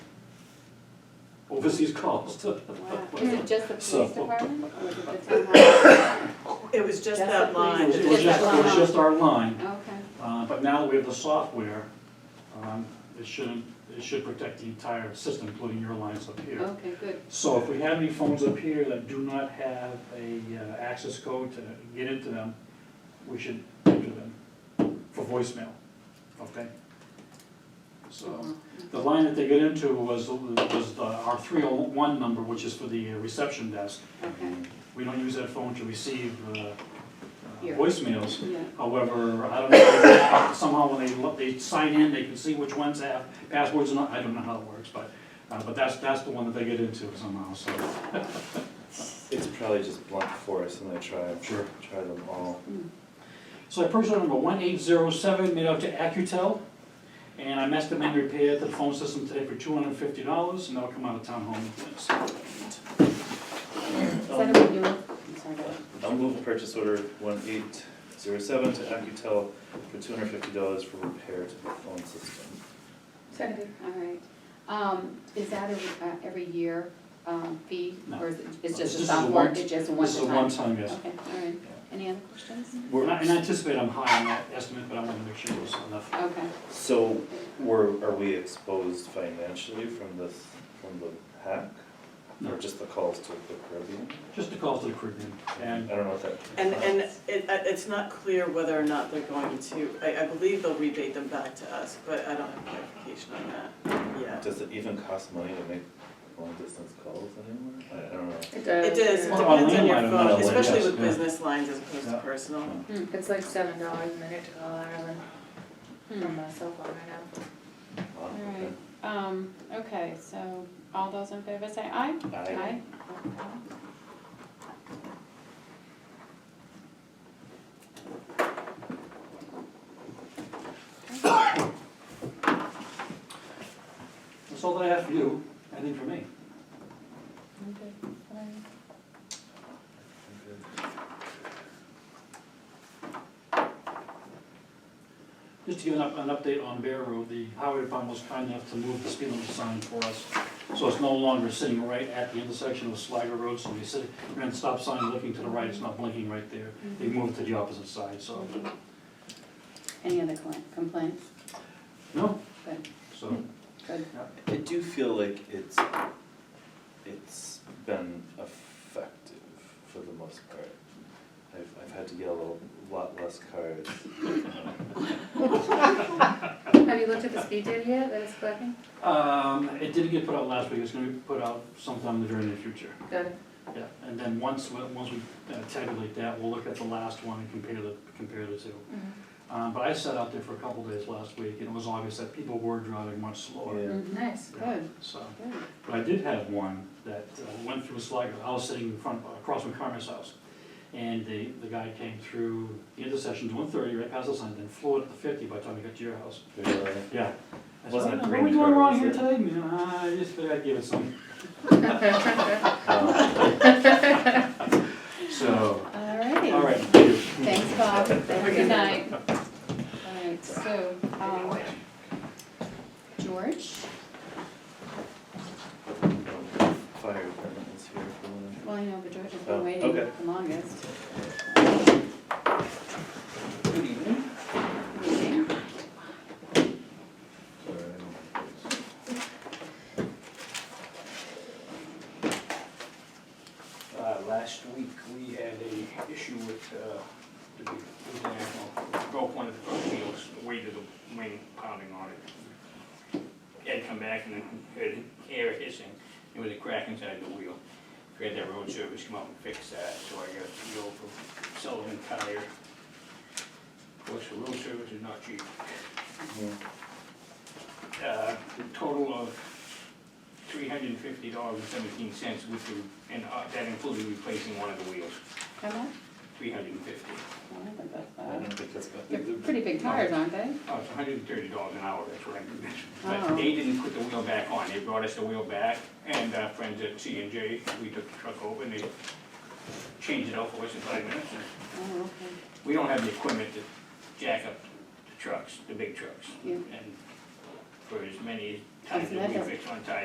overseas cost. Wow. Is it just the So- police department or is it the town It was Just just that the It line. was- police. it was just, it was just our line. hall? Okay. Uh, But now that we have the software, um, it shouldn't, it should protect the entire system, including your lines up here. Okay, good. So if we have any phones up here that do not have a uh, access code to get into them, we should enter them for voicemail, okay? So, the line that they get into was, was the- our 301 number, which is for the reception desk. Okay, We don't use that phone to receive uh, uh, Here. voicemails. yeah. However, I don't know, somehow when they, look- they sign in, they can see which ones have passwords and not, I don't know how it works, but, uh, but that's, that's the one that they get into somehow, so. It's probably just blunt force and they try, Sure. try them all. So I purchased number one eight zero seven made out to Accutel, and I messed them in repair the phone system today for two hundred and fifty dollars, and that'll come out of town home. maintenance. Is that a renewal? I'm sorry, go ahead. I'll move purchase order one eight zero seven to Accutel for two hundred fifty dollars for repair to the phone system. Seconded, all right. Um, is that a, uh, every year, um, fee? No. Or is it, This it's just a is a sophomore, one- it's just a one This is to a time? one-time, yes. Okay, all right. Any other questions? We're- And I and I anticipate I'm high on that estimate, but I want to make sure it's enough. Okay, So were, are we exposed financially from this, from the hack? No. Or just the calls to the Caribbean? Just a call to the Caribbean, and I don't know if that. And, and it, uh, it's not clear whether or not they're going to, I, I believe they'll rebate them back to us, but I don't have clarification on that yet. Does it even cost money to make long distance calls anymore? I- I don't know. It It does. does, it Well, online depends on line, your online phone, line, especially yes, with yeah. business lines as opposed to Yeah. personal. Hmm. It's like seven dollars a minute to call Ireland from a cell phone right now. Wow, Hmm. all okay. right. Um, okay, so all those in favor say aye? Aye. that's all that I have for you, anything for me. Just to give an, up- an update on Bear Road, the highway department was kind enough to move the speed limit sign for us. So it's no longer sitting right at the intersection of Slager Road, so we sit, ran the stop sign looking to the right, it's not blinking right there. They moved to the opposite side, so, Any other cli- complaints? no, Good, so. good. I do feel like it's, it's been effective for the most part. I've, I've had to get a little- lot less Um, cards. Have you looked at the speed data yet that it's collecting? Um, it didn't get put out last week, it's gonna be put out sometime during the future. Good. Yeah, and then once, we- once we uh, tabulate that, we'll look at the last one and compare the, compare the two. Um, but I sat out there for a couple days last week, and it was obvious that people were driving much slower, Yeah. Mhm. Mm-hmm. Nice, Good, so. good. But I did have one that uh, went through Sligo, I was sitting in front, across from Carmen's house. And the, the guy came through the intersection to one thirty, right past the sign, then flew it up to fifty by the time he got to your house. Really? Yeah. I said, Wasn't it "What are green we doing curve, wrong was here it?" today? Man, I just figured I'd give it some. Um, So, All righty. all right, thank you. Thanks, Bob. Good night. All right, so, um, George, Fire department is here for one. well, I know, but George has Oh, been waiting okay. the longest. Good Uh, evening. meeting. Uh, Last week, we had a issue with uh, the big international, broke one of the front wheels, the weight of the wing pounding on it. Had come back and heard air hissing, there was a crack inside the wheel. We had that road service come out and fix that, so I got to go from Sullivan Tire. Of course, the road service is not cheap. Uh, The total of three hundred and fifty dollars and seventeen cents, which, were- and uh, that included replacing one of the wheels, Come on. three hundred and fifty. Well, I think that's I don't bad. think that's bad. They're pretty big tires, aren't they? Oh, it's hundred and thirty dollars an hour, that's what I mean. Oh. But they didn't put the wheel back on, they brought us the wheel back, and our friends at C and J, we took the truck over, and they changed it out for us in five minutes. and Oh, okay. We don't have the equipment to jack up the trucks, the big trucks. Yeah. And for as many times Doesn't that we matter. fix on tires,